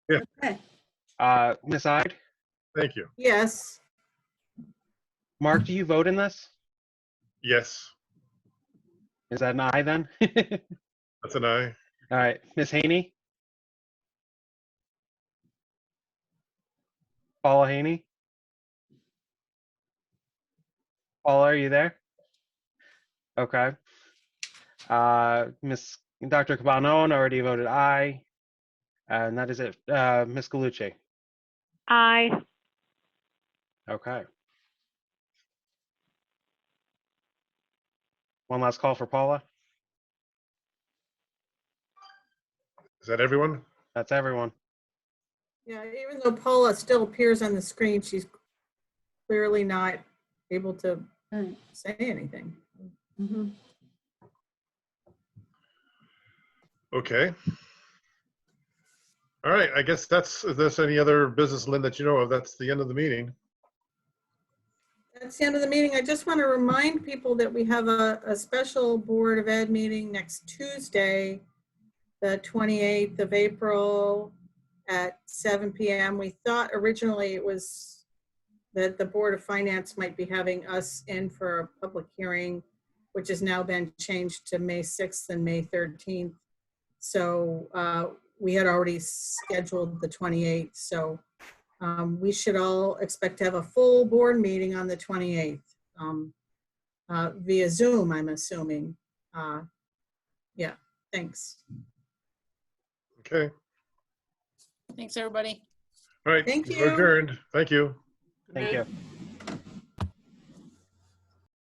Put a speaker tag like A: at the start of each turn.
A: Uh, Ms. Ide,
B: Thank you.
C: Yes,
A: Mark, do you vote in this?
B: Yes,
A: Is that an aye then?
B: that's an aye.
A: All right, Ms. Haney? Paula Haney? Paula, are you there? Okay. Uh, Ms., Dr. Cabana already voted aye. And that is it. Uh, Ms. Galucci?
D: Aye.
A: Okay. One last call for Paula.
B: Is that everyone?
A: That's everyone.
C: yeah, even though Paula still appears on the screen, she's clearly not able to
E: Right.
C: say anything.
E: Mhm.
B: Okay. All right, I guess that's, if there's any other business, Lynn, that you know of, that's the end of the meeting.
C: That's the end of the meeting. I just want to remind people that we have a, a special Board of Ed meeting next Tuesday, the 28th of April at 7 PM. We thought originally it was that the Board of Finance might be having us in for a public hearing, which has now been changed to May 6th and May 13th. So uh, we had already scheduled the 28th, so um, we should all expect to have a full board meeting on the 28th um, uh, via Zoom, I'm assuming. Uh, Yeah, thanks.
B: Okay,
E: Thanks, everybody.
B: all right.
C: Thank
B: we're
C: you.
B: Adjourned, thank you.
A: Thank you.